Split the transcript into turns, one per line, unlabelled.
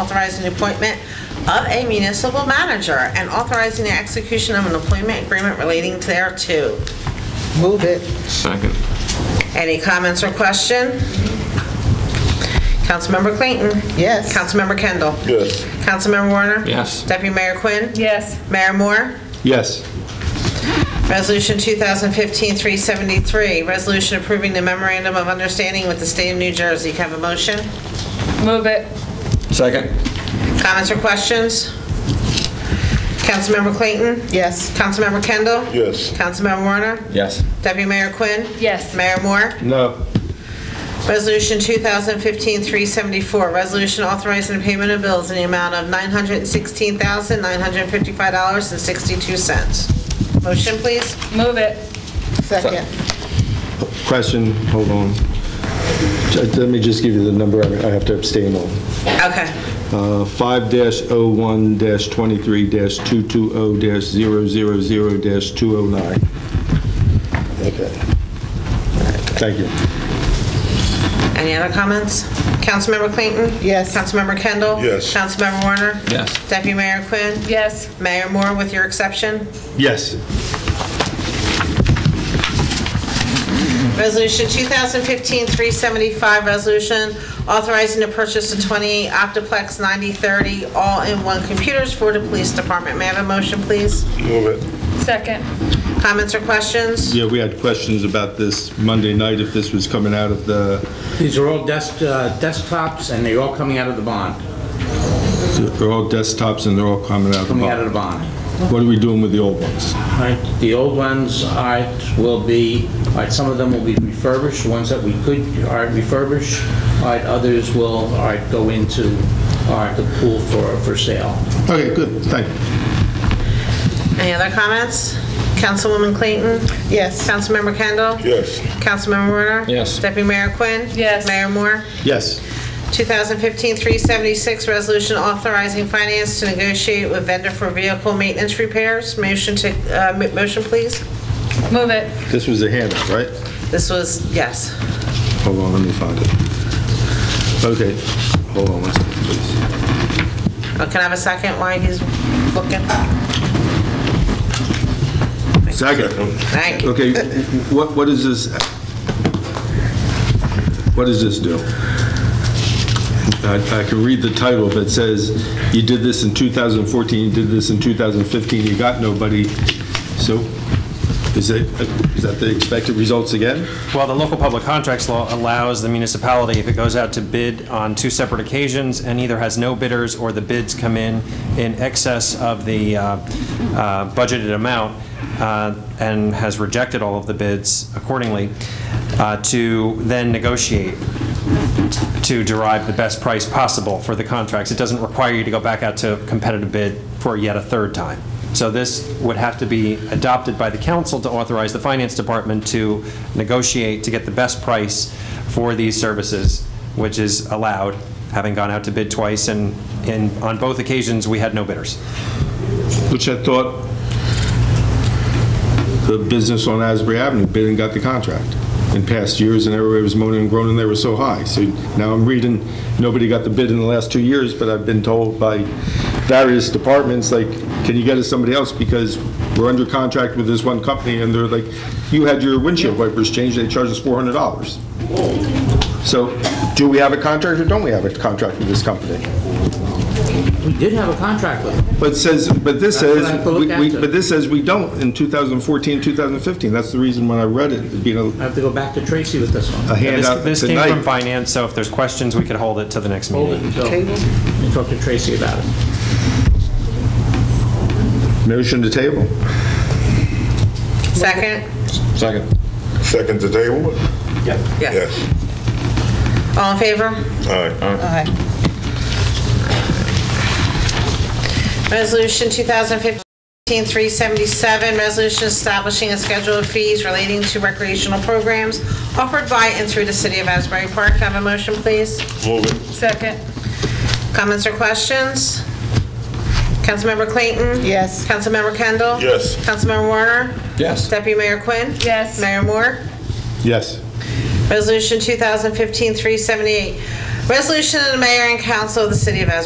authorizing the appointment of a municipal manager and authorizing the execution of an employment agreement relating thereto.
Move it.
Second.
Any comments or question? Councilmember Clayton?
Yes.
Councilmember Kendall?
Yes.
Councilmember Warner?
Yes.
Deputy Mayor Quinn?
Yes.
Mayor Moore?
Yes.
Resolution 2015-373, resolution approving the memorandum of understanding with the state of New Jersey. Can I have a motion?
Move it.
Second.
Comments or questions? Councilmember Clayton?
Yes.
Councilmember Kendall?
Yes.
Councilmember Warner?
Yes.
Deputy Mayor Quinn?
Yes.
Mayor Moore?
No.
Resolution 2015-374, resolution authorizing the payment of bills in the amount of $916,955.62. Motion, please.
Move it.
Second.
Question, hold on. Ju- Let me just give you the number I I have to abstain on.
Okay.
Uh, oh 5-01-23-220-000-209. Okay. Thank you.
Any other comments? Councilmember Clayton?
Yes.
Councilmember Kendall?
Yes.
Councilmember Warner?
Yes.
Deputy Mayor Quinn?
Yes.
Mayor Moore, with your exception?
Yes.
Resolution 2015-375, resolution authorizing the purchase of 28 Optiplex 9030 all-in-one computers for the police department. May I have a motion, please?
Move it.
Second.
Comments or questions?
Yeah, we had questions about this Monday night, if this was coming out of the,
These are all desk, uh, desktops, and they're all coming out of the bond,
they're all desktops and they're all coming out of the
coming out of the
box.
bond.
What are we doing with the old ones?
All right, the old ones, all right, will be, all right, some of them will be refurbished, the ones that we could, all right, refurbish, all right, others will, all right, go into, all right, the pool for, for sale.
Okay, good, thank you.
Any other comments? Councilwoman Clayton?
Yes.
Councilmember Kendall?
Yes.
Councilmember Warner?
Yes.
Deputy Mayor Quinn?
Yes.
Mayor Moore?
Yes.
2015-376, resolution authorizing finance to negotiate with vendor for vehicle maintenance repairs. Motion to, uh, m- motion, please.
Move it.
This was a handout, right?
This was, yes.
Hold on, let me find it. Okay, hold on one second, please.
Oh, Can I have a second while he's looking?
Second.
Thank you.
Okay, what, what is this? What does this do? I, I can read the title, but it says, you did this in 2014, you did this in 2015, you got nobody. So is it, is that the expected results again?
Well, the local public contracts law allows the municipality, if it goes out to bid on two separate occasions and either has no bidders or the bids come in in excess of the uh, uh, budgeted amount uh, and has rejected all of the bids accordingly, uh, to then negotiate to derive the best price possible for the contracts. It doesn't require you to go back out to competitive bid for yet a third time. So this would have to be adopted by the council to authorize the finance department to negotiate to get the best price for these services, which is allowed, having gone out to bid twice, and, and on both occasions, we had no bidders.
Which I thought the business on Asbury Avenue bid and got the contract in past years, and everybody was moaning and groaning, they were so high. So now I'm reading, nobody got the bid in the last two years, but I've been told by various departments, like, can you get us somebody else, because we're under contract with this one company, and they're like, you had your windshield wipers changed, they charged us $400. So do we have a contract, or don't we have a contract with this company?
We did have a contract with them.
But says, but this
That's what
says,
I have to
we-
look
we-
at.
but this says we don't in 2014, 2015. That's the reason when I read it, it'd be a
I have to go back to Tracy with this
a
one.
This-
handout
This came from
tonight.
finance, so if there's questions, we could hold it to the next
Hold
meeting.
it until, I talked to Tracy about it.
Motion to table.
Second?
Second.
Second to table?
Yes.
Yes.
All in favor?
Aye.
Aye.
Resolution 2015-377, resolution establishing a schedule of fees relating to recreational programs offered by and through the city of Asbury Park. Can I have a motion, please?
Move it.
Second.
Comments or questions? Councilmember Clayton?
Yes.
Councilmember Kendall?
Yes.
Councilmember Warner?
Yes.
Deputy Mayor Quinn?
Yes.
Mayor Moore?
Yes.
Resolution 2015-378, resolution of the mayor and council of the city of Asbury